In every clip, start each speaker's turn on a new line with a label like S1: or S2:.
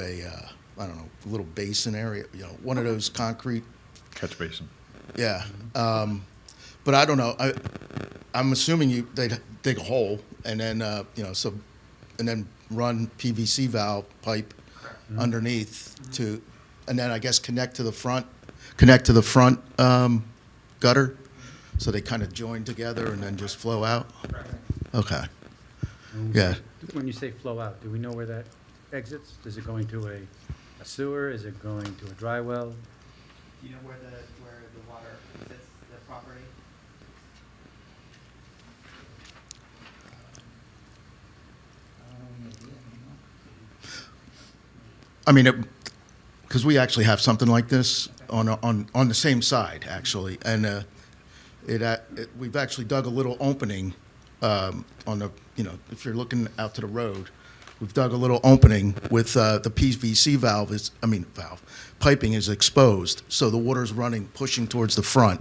S1: a, uh, I don't know, little basin area, you know, one of those concrete,
S2: Catch basin.
S1: yeah. Um, But I don't know, I, I'm assuming you, they'd dig a hole and then, uh, you know, so, and then run PVC valve pipe underneath to, and then I guess connect to the front, connect to the front um, gutter, so they kind of join together and then just flow out? Okay, yeah.
S3: When you say flow out, do we know where that exits? Is it going to a a sewer? Is it going to a dry well?
S4: Do you know where the, where the water exits the property?
S1: I mean, because we actually have something like this on, on, on the same side, actually, and uh, it, uh, it, we've actually dug a little opening um, on the, you know, if you're looking out to the road, we've dug a little opening with uh, the PVC valve is, I mean, valve, piping is exposed, so the water's running, pushing towards the front,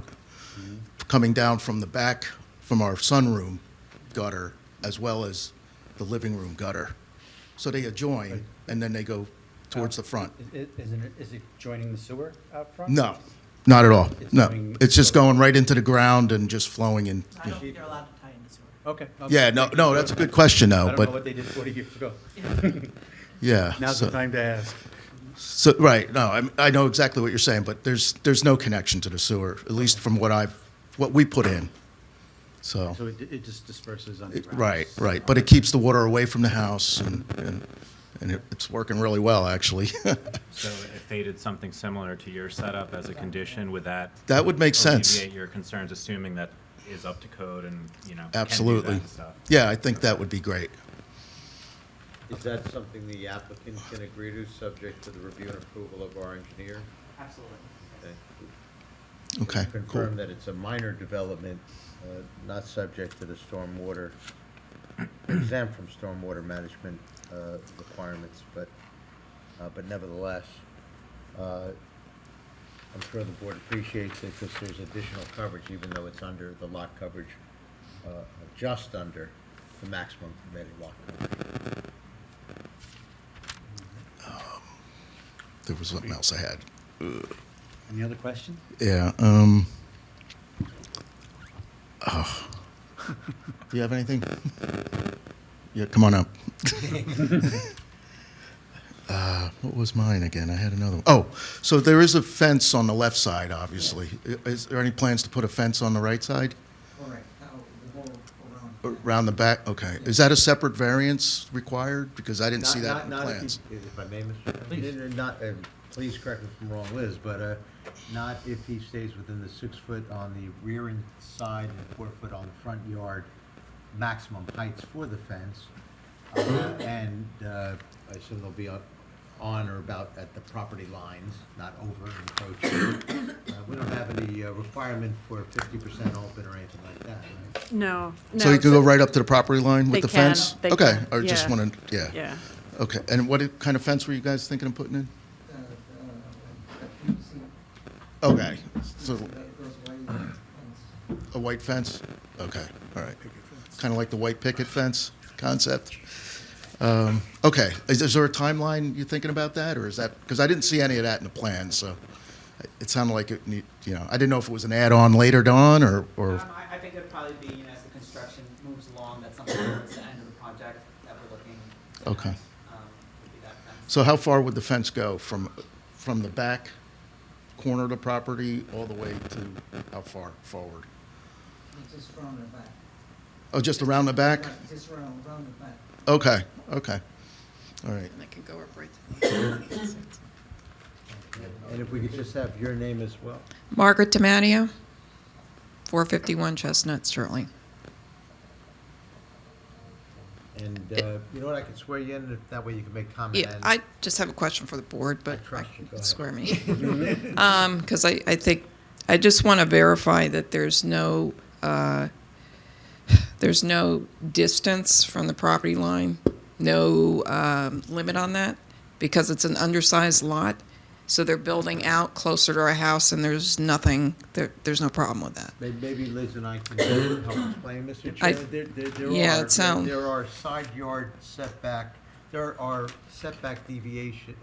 S1: coming down from the back, from our sunroom gutter, as well as the living room gutter. So they adjoin, and then they go towards the front.
S3: Is- is- Isn't it, is it joining the sewer out front?
S1: No, not at all.
S3: It's
S1: No,
S3: going-
S1: it's just going right into the ground and just flowing in.
S4: I don't think they're allowed to tie in the sewer.
S3: Okay. okay.
S1: Yeah, no, no, that's a good question
S3: I
S1: though,
S3: don't know what
S1: but
S3: they did 40 years ago.
S1: yeah.
S3: Now's
S1: so-
S3: the time to ask.
S1: So, right, no, I'm- I know exactly what you're saying, but there's, there's no connection to the sewer, at least from what I've, what we put in. So,
S3: So it it just disperses
S1: it-
S3: underground.
S1: right, right, but it keeps the water away from the house and, and- and it- it's working really well, actually.
S5: So if they did something similar to your setup as a condition, would that?
S1: That would make sense.
S5: Alleviate your concerns, assuming that is up to code and, you know. can do that
S1: Absolutely.
S5: and stuff.
S1: Yeah, I think that would be great.
S6: Is that something the applicant can agree to, subject to the review and approval of our engineer?
S4: Absolutely.
S6: Okay.
S1: Okay, Uh, cool.
S6: Confirm that it's a minor development, uh, not subject to the stormwater, exempt from stormwater management uh, requirements, but, uh, but nevertheless, uh, I'm sure the board appreciates it because there's additional coverage, even though it's under the lot coverage, uh, just under the maximum permitted lot coverage.
S1: There was something else I had.
S3: Any other questions?
S1: Yeah, um. Oh. Do you have anything? Yeah, come on up. Uh, what was mine again? I had another one. Oh, so there is a fence on the left side, obviously. I- Is there any plans to put a fence on the right side?
S7: All right, now, the whole around.
S1: Around the back? Okay. Is that a separate variance required? Because I didn't see
S6: Not-
S1: that in the
S6: not- not if
S1: plans.
S6: he- If I may, Mr. Please. Not, uh, please correct me if I'm wrong, Liz, but uh, not if he stays within the six foot on the rear and side and four foot on the front yard maximum heights for the fence. uh, And uh, I assume they'll be on- on or about at the property lines, not over encroaching. Uh, We don't have any uh, requirement for fifty percent open or anything like that, right?
S8: No.
S1: So
S8: no,
S1: you could go right up to the property line
S8: They
S1: with the
S8: can,
S1: fence?
S8: they
S1: Okay,
S8: can,
S1: I just
S8: yeah.
S1: wanted, yeah.
S8: Yeah.
S1: Okay, and what kind of fence were you guys thinking of putting in?
S7: uh, uh, you see,
S1: Okay, so
S7: that goes wide, and
S1: a white fence? Okay, all right. Kind of like the white picket fence concept? Um, Okay, is is there a timeline you're thinking about that, or is that, because I didn't see any of that in the plan, so it sounded like it, need- you know, I didn't know if it was an add-on later on, or, or,
S4: Um, I, I think it'd probably be, you know, as the construction moves along, that's something towards the end of the project that we're looking. to
S1: Okay.
S4: have, um, would be that fence.
S1: so how far would the fence go? From, from the back corner of the property all the way to how far forward?
S7: it's just round the back.
S1: Oh, just around the back?
S7: Right, Just round, round the back.
S1: Okay, okay, all right.
S8: And it can go up right to the.
S6: And if we could just have your name as well.
S9: Margaret Demanio, 451 Chestnut, Sterling.
S6: And uh, you know what, I can swear you in, if that way you can make comment.
S9: Yeah,
S6: and-
S9: I just have a question for the board, but
S6: I
S9: I
S6: trust you. Go ahead.
S9: square me. Because I, I think, I just want to verify that there's no, uh, there's no distance from the property line, no um, limit on that, because it's an undersized lot, so they're building out closer to our house, and there's nothing, there, there's no problem with that.
S6: May- Maybe Liz and I can help explain, Mr.
S9: I-
S6: Chair. There- there- there
S9: Yeah,
S6: are-
S9: it sound-
S6: There are side yard setback, there are setback deviation,